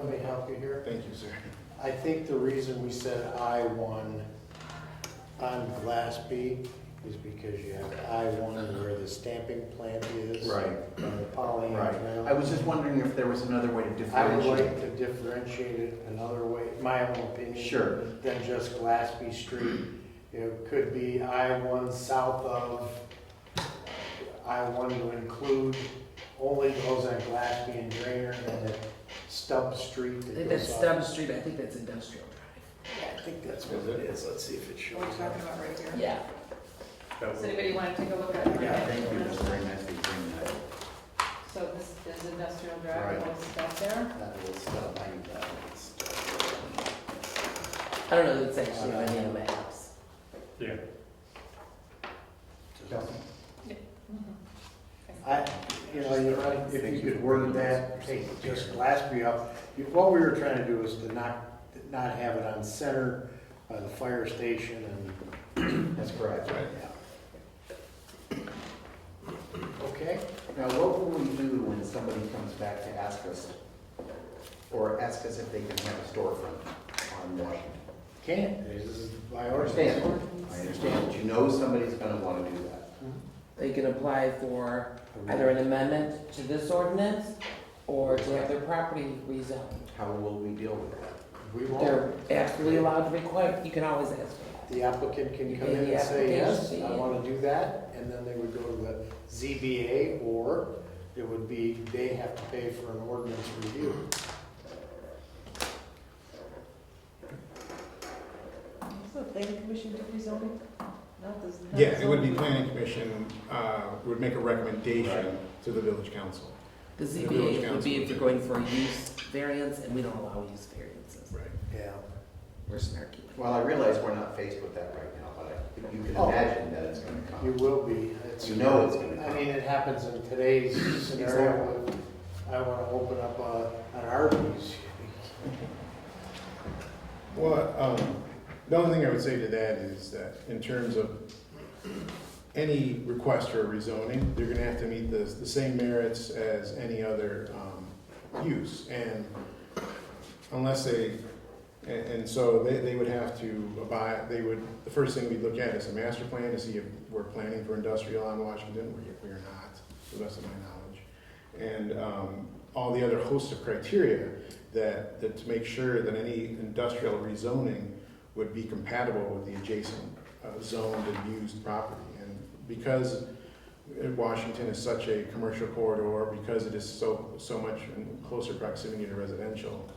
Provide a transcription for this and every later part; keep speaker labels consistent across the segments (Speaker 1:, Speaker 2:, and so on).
Speaker 1: Let me help you here.
Speaker 2: Thank you, sir.
Speaker 1: I think the reason we said I one on Glassby is because you have I one where the stamping plant is.
Speaker 3: Right.
Speaker 1: And the poly.
Speaker 3: Right, I was just wondering if there was another way to
Speaker 1: I would like
Speaker 3: differentiate.
Speaker 1: to differentiate it another way, my own opinion.
Speaker 3: Sure.
Speaker 1: Than just Glassby Street. It could be I one south of, I one to include only those on Glassby and Drainer and then Stubb Street
Speaker 4: I
Speaker 1: that
Speaker 4: think
Speaker 1: goes
Speaker 4: that's
Speaker 1: off.
Speaker 4: Stubbs Street, I think that's Industrial Drive.
Speaker 1: Yeah, I think that's what it is. Let's see if it shows
Speaker 5: What are we talking
Speaker 1: up.
Speaker 5: about right here?
Speaker 4: Yeah.
Speaker 5: Does anybody want to take a look at it?
Speaker 3: Yeah, thank you, that's very nice that you bring that.
Speaker 5: So this is industrial drive,
Speaker 3: Right.
Speaker 5: what's back there?
Speaker 3: That will stop, I knew that would stop.
Speaker 4: I don't know that it's actually on any of the maps.
Speaker 1: I, you know, you're right, if you could word that, take just Glassby up. You- What we were trying to do is to not, not have it on center by the fire station and. That's correct. Okay,
Speaker 3: Now, what will we do when somebody comes back to ask us, or ask us if they can have a storefront on Washington?
Speaker 1: can't, this is by
Speaker 3: I
Speaker 1: ordinance.
Speaker 3: understand, I understand, but you know somebody's gonna wanna do that.
Speaker 4: They can apply for either an amendment to this ordinance or to have their property rezoned.
Speaker 3: How will we deal with that?
Speaker 1: We won't,
Speaker 4: They're absolutely allowed to request, you can always ask for
Speaker 1: the applicant can come in and say, yes, I want to do that, and then they would go to the ZBA, or it would be, they have to pay for an ordinance review.
Speaker 5: Is the planning commission do rezoning? Not this- not
Speaker 2: Yeah, it would be
Speaker 5: zoning.
Speaker 2: planning commission, uh, would make a recommendation to the village council.
Speaker 4: that. The ZBA would be if you're going for a use variance, and we don't allow use variances.
Speaker 2: Right.
Speaker 1: Yeah.
Speaker 4: We're snarky.
Speaker 3: Well, I realize we're not faced with that right now, but I, you can
Speaker 1: Oh.
Speaker 3: imagine that it's gonna
Speaker 1: You
Speaker 3: come.
Speaker 1: will be. It's-
Speaker 3: You know it's gonna
Speaker 1: I
Speaker 3: come.
Speaker 1: mean, it happens in today's scenario. I want to open up a- an Arby's.
Speaker 2: Well, um, the only thing I would say to that is that in terms of any request for rezoning, you're gonna have to meet the, the same merits as any other, um, use, and unless they, and, and so they, they would have to abide, they would, the first thing we'd look at is a master plan to see if we're planning for industrial on Washington, we, we are not, to the best of my knowledge. And, um, all the other host of criteria that, that to make sure that any industrial rezoning would be compatible with the adjacent uh, zoned and used property. And because uh, Washington is such a commercial corridor, because it is so, so much in closer proximity to residential,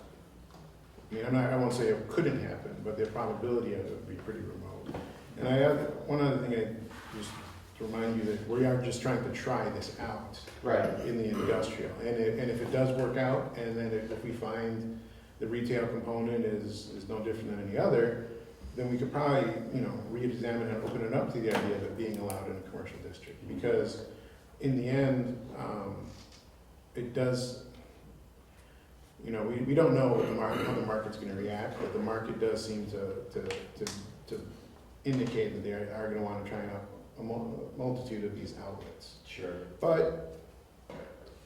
Speaker 2: I mean, I'm not, I won't say it couldn't happen, but the probability of it would be pretty remote. And I, have- one other thing I, just to remind you that we are just trying to try this out
Speaker 3: Right.
Speaker 2: in the industrial. And if, and if it does work out, and then if if we find the retail component is, is no different than any other, then we could probably, you know, reexamine and open it up to the idea of it being allowed in a commercial district. Because in the end, um, it does, you know, we, we don't know what the market, how the market's gonna react, but the market does seem to, to, to, to indicate that they are are gonna wanna try out a mul- multitude of these outlets.
Speaker 3: Sure.
Speaker 2: But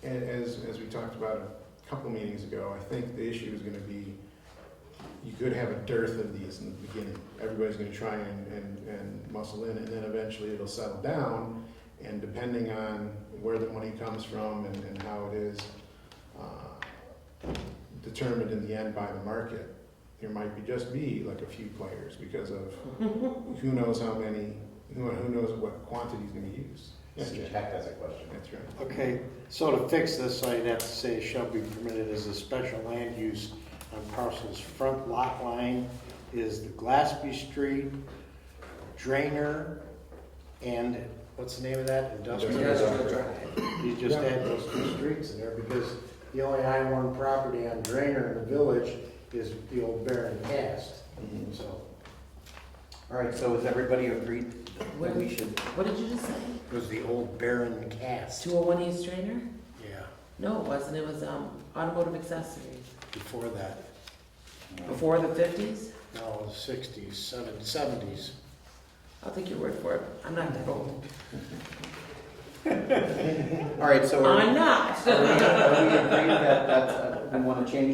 Speaker 2: a- as, as we talked about a couple meetings ago, I think the issue is gonna be, you could have a dearth of these in the beginning. Everybody's gonna try and, and, and muscle in, and then eventually it'll settle down. And depending on where the money comes from and, and how it is, uh, determined in the end by the market, there might be, just be like a few players because of who knows how many, who, who knows what quantity he's gonna use.
Speaker 3: Yes,
Speaker 2: Yeah,
Speaker 3: Jack has a question.
Speaker 2: That's right.
Speaker 1: Okay, so to fix this, all you'd have to say shall be permitted as a special land use on parcels. Front lot line is the Glassby Street, Drainer, and what's the name of that?
Speaker 4: Industrial Drive.
Speaker 1: You just add those two streets in there because the only I one property on Drainer in the village is the old Baron Cast, so.
Speaker 3: Mm-hmm. All right, so is everybody agreed that
Speaker 4: What-
Speaker 3: we should,
Speaker 4: What did you just say?
Speaker 1: It was the old Baron Cast.
Speaker 4: Two oh one East Trainer?
Speaker 1: Yeah,
Speaker 4: No, it wasn't, it was, um, automotive accessories.
Speaker 1: before that,
Speaker 4: Before the fifties?
Speaker 1: no, sixties, seven, seventies.
Speaker 4: I'll take your word for it, I'm not that old.
Speaker 3: all right, so are we,
Speaker 4: I'm not.
Speaker 3: are we are we agreed that that's, uh, we wanna change